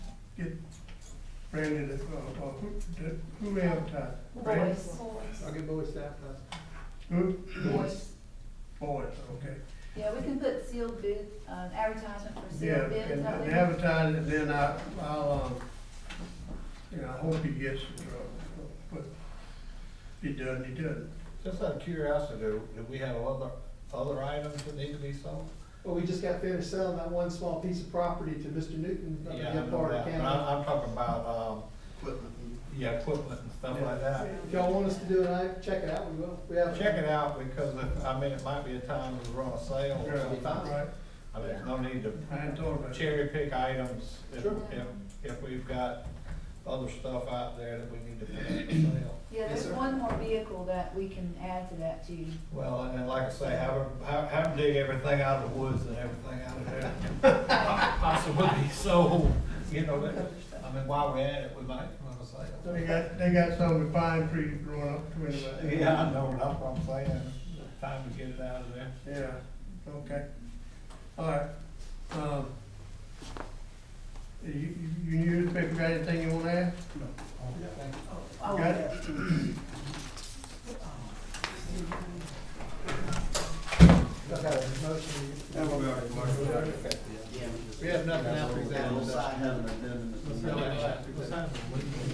get Brandon, to- uh, uh, who, did- who advertised? Brandon? Boys, I'll get Bowie staff, uh, Who? boys. Boys, okay. Yeah, we can put sealed bid, um, advertisement for Yeah, sealed bids and out and there. advertise it, then I, I'll, um, you know, I hope he gets the truck, but if he doesn't, he doesn't. Just out of curiosity, do, do we have other, other items that need to be sold? well, we just got finished selling that one small piece of property to Mr. Newton up in Yeah, I know Gephardt that, but County. I'm, I'm talking about, um, equipment. yeah, equipment and stuff like that. If y'all want us to do it, I, check it out, we will, we have. Check it out, because if, I mean, it might be a time to run a sale or Yeah, something. Right, I mean, there's no need to I hadn't thought about it. cherry pick items if, Sure. if, if we've got other stuff out there that we need to put up for sale. Yeah, Yes, there's sir. one more vehicle that we can add to that too. Well, and then, like I say, have, her- have, have them dig everything out of the woods and everything out of there. Possibly, so, you know, that- I mean, while we're at it, we might run a sale. They got, they got some with pine trees growing up between them. Yeah, I know, that's what I'm saying, It's time to get it out of there. Yeah, okay. All right, um, you, you you newspaper got anything you wanna add? Got Oh, yeah. Y'all got a motion? We have nothing else for example. We'll sign an addendum. Let's go ahead.